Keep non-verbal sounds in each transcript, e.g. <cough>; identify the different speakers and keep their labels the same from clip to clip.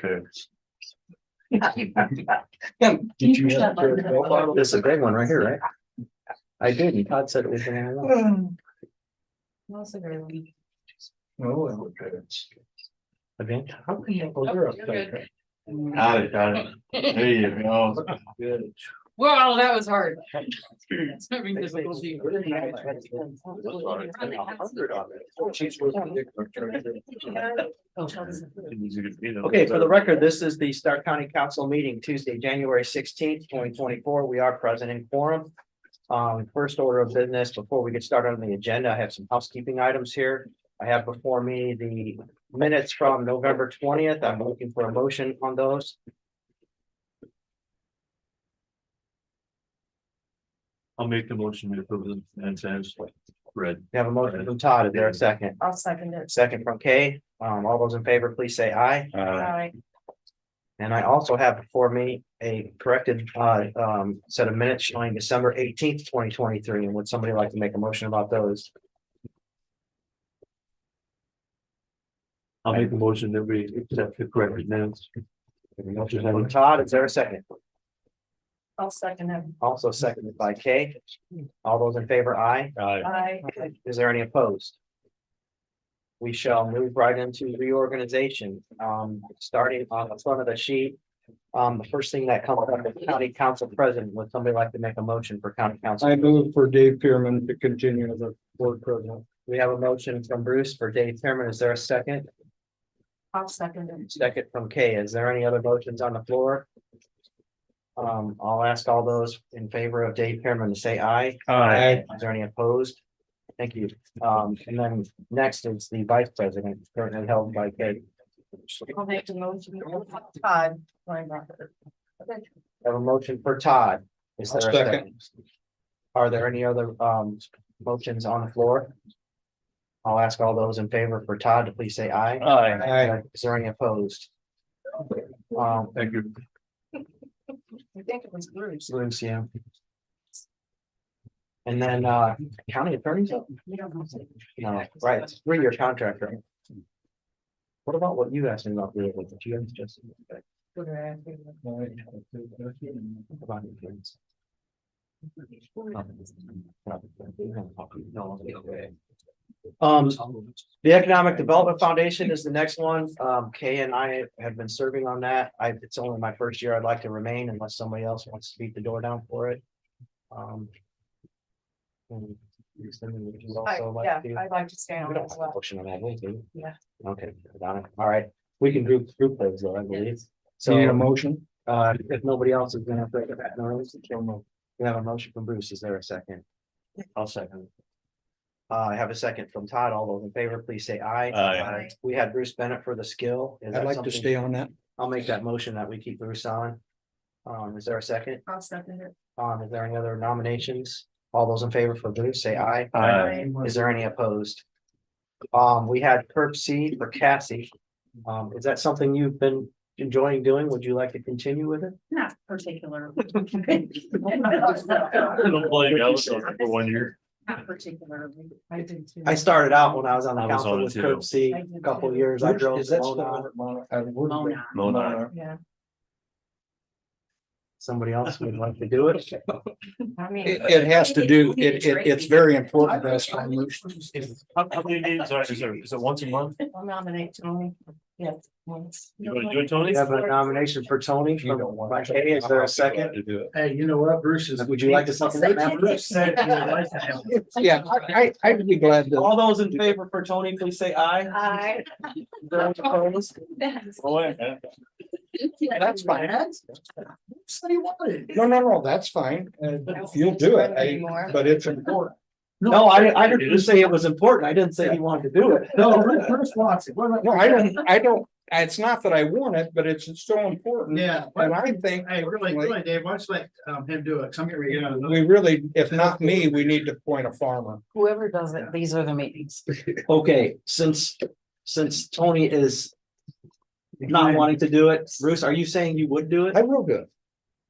Speaker 1: too.
Speaker 2: Did you have Jared Goff?
Speaker 3: This is a great one right here, right? I didn't. Todd said it was. gonna happen.
Speaker 2: Mm. No, I
Speaker 3: Oh,
Speaker 2: would bet it's-
Speaker 3: Event.
Speaker 2: How can you? oh, you're up there.
Speaker 1: Got it, got it. There you go.
Speaker 2: Good.
Speaker 4: Well, that was hard. <laughs> It's having
Speaker 2: They say it's
Speaker 4: difficulty.
Speaker 2: really nice, right? That's why it's been a hundred on it. Oh, she's worth the-
Speaker 3: Okay, for the record, this is the Stark County Council meeting Tuesday, January sixteenth, twenty twenty-four. We are present in quorum. Um, first order of business, before we get started on the agenda, I have some housekeeping items here. I have before me the minutes from November twentieth. I'm looking for a motion on those.
Speaker 1: I'll make the motion to approve them and says red.
Speaker 3: We have a motion from Todd. Is there a second?
Speaker 4: I'll second it.
Speaker 3: Second from Kay. Um, all those in favor, please say aye.
Speaker 1: Uh,
Speaker 4: Aye.
Speaker 3: And I also have before me a corrected uh um set of minutes showing December eighteenth, twenty twenty-three, and would somebody like to make a motion about those?
Speaker 1: I'll make the motion that we accept the corrected minutes.
Speaker 3: From Todd, is there a second?
Speaker 4: I'll second it.
Speaker 3: Also seconded by Kay. All those in favor, aye.
Speaker 1: Aye.
Speaker 4: Aye.
Speaker 3: Is there any opposed? We shall move right into reorganization, um, starting on the front of the sheet. Um, the first thing that comes up is county council president. Would somebody like to make a motion for county council?
Speaker 2: I move for Dave Pearman to continue as a board president.
Speaker 3: We have a motion from Bruce for Dave Thurman. Is there a second?
Speaker 4: I'll second it.
Speaker 3: Second from Kay. Is there any other motions on the floor? Um, I'll ask all those in favor of Dave Pearman to say aye.
Speaker 2: Aye.
Speaker 3: Is there any opposed? Thank you. Um, and then next is the vice president currently held by Kay.
Speaker 4: I'll make the motion. Todd. Linebacker.
Speaker 3: Have a motion for Todd. Is there a
Speaker 2: I'll
Speaker 3: second? Are there any other um motions on the floor? I'll ask all those in favor for Todd to please say aye.
Speaker 1: Aye.
Speaker 2: Aye.
Speaker 3: Is there any opposed? Um,
Speaker 1: Thank you.
Speaker 4: I think it was Bruce.
Speaker 3: Bruce, yeah. And then uh county attorney's, up?
Speaker 4: You don't have to-
Speaker 3: no, right, it's three-year contract, right? What about what you asked me about? the- what you guys just- Um, about the insurance? Um, The Economic Development Foundation is the next one. Um, Kay and I have been serving on that. I, it's only my first year. I'd like to remain unless somebody else wants to beat the door down for it. Um. and Cindy, would you
Speaker 4: I-
Speaker 3: also
Speaker 4: Yeah,
Speaker 3: like to-
Speaker 4: I'd like to stay
Speaker 3: We
Speaker 4: on
Speaker 3: don't
Speaker 4: as
Speaker 3: have a
Speaker 4: well.
Speaker 3: motion on that, we do.
Speaker 4: Yeah.
Speaker 3: Okay, got it. All right. We can group, group those though, I believe.
Speaker 2: Need a
Speaker 3: So,
Speaker 2: motion?
Speaker 3: uh, if nobody else is gonna break that, no, we have a motion from Bruce. Is there a second? I'll second. Uh, I have a second from Todd. All those in favor, please say aye.
Speaker 1: Aye.
Speaker 4: Aye.
Speaker 3: We had Bruce Bennett for the skill. Is
Speaker 2: I'd
Speaker 3: that
Speaker 2: like to
Speaker 3: something-
Speaker 2: stay on that.
Speaker 3: I'll make that motion that we keep Bruce on. Um, is there a second?
Speaker 4: I'll second it.
Speaker 3: Um, is there any other nominations? All those in favor for Bruce, say aye.
Speaker 4: Aye.
Speaker 3: Is there any opposed? Um, we had Perp C for Cassie. Um, is that something you've been enjoying doing? Would you like to continue with it?
Speaker 4: Not <laughs> particular.
Speaker 1: Don't blame Allison for one year.
Speaker 4: Not particularly. I did too.
Speaker 3: I started out when I was on the
Speaker 1: I was on
Speaker 3: council
Speaker 1: it
Speaker 3: with
Speaker 1: too.
Speaker 3: Perp C
Speaker 4: I
Speaker 3: a
Speaker 4: did
Speaker 3: couple
Speaker 4: too.
Speaker 3: years. I drove.
Speaker 2: Is that
Speaker 3: Mona.
Speaker 2: still Mona? Uh, I would-
Speaker 4: Mona.
Speaker 1: Mona.
Speaker 4: Yeah,
Speaker 3: Somebody else would like to do it.
Speaker 4: I mean.
Speaker 2: It, it has to do, it, it, it's very important to us.
Speaker 1: Is- How how many names are, is there, is it once a month?
Speaker 4: I'll nominate Tony. Yes, once.
Speaker 1: You wanna do it, Tony?
Speaker 3: We have a nomination for Tony
Speaker 2: You
Speaker 3: from
Speaker 2: don't want-
Speaker 3: by Kay. Is there a second?
Speaker 2: Hey, you know what, Bruce is.
Speaker 3: Would you like to second that? now?
Speaker 4: Bruce said he would like
Speaker 3: <laughs>
Speaker 4: to have
Speaker 2: Yeah, I, I- I'd be glad to.
Speaker 3: All those in favor for Tony, please say aye.
Speaker 4: <laughs> Aye.
Speaker 3: Those opposed?
Speaker 1: Oh, yeah.
Speaker 2: That's fine.
Speaker 4: So you wanted.
Speaker 2: No, no, no, that's fine. Uh, You'll do it, I- but it's important.
Speaker 3: No, I, I didn't say it was important. I didn't say he wanted to do it.
Speaker 2: No,
Speaker 3: Bruce wants it.
Speaker 2: No, I don't, I don't, it's not that I want it, but it's so important.
Speaker 5: Yeah.
Speaker 2: And I think
Speaker 5: Hey, really, really, Dave, why don't you let um him do it? Cause I'm getting ready to get out of the-
Speaker 2: we really, if not me, we need to appoint a farmer.
Speaker 4: Whoever does it, these are the meetings.
Speaker 3: Okay, since, since Tony is not wanting to do it, Bruce, are you saying you would do it?
Speaker 2: I will do it.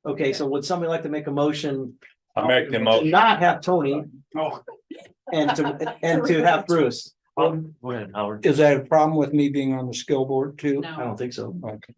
Speaker 3: Okay, so would somebody like to make a motion
Speaker 6: I make the
Speaker 3: to
Speaker 6: motion,
Speaker 3: not have Tony
Speaker 5: Oh,
Speaker 3: and to, and to have Bruce?
Speaker 1: Um, Go ahead, Howard.
Speaker 2: Is that a problem with me being on the skill board too?
Speaker 3: I don't think so.
Speaker 2: Okay.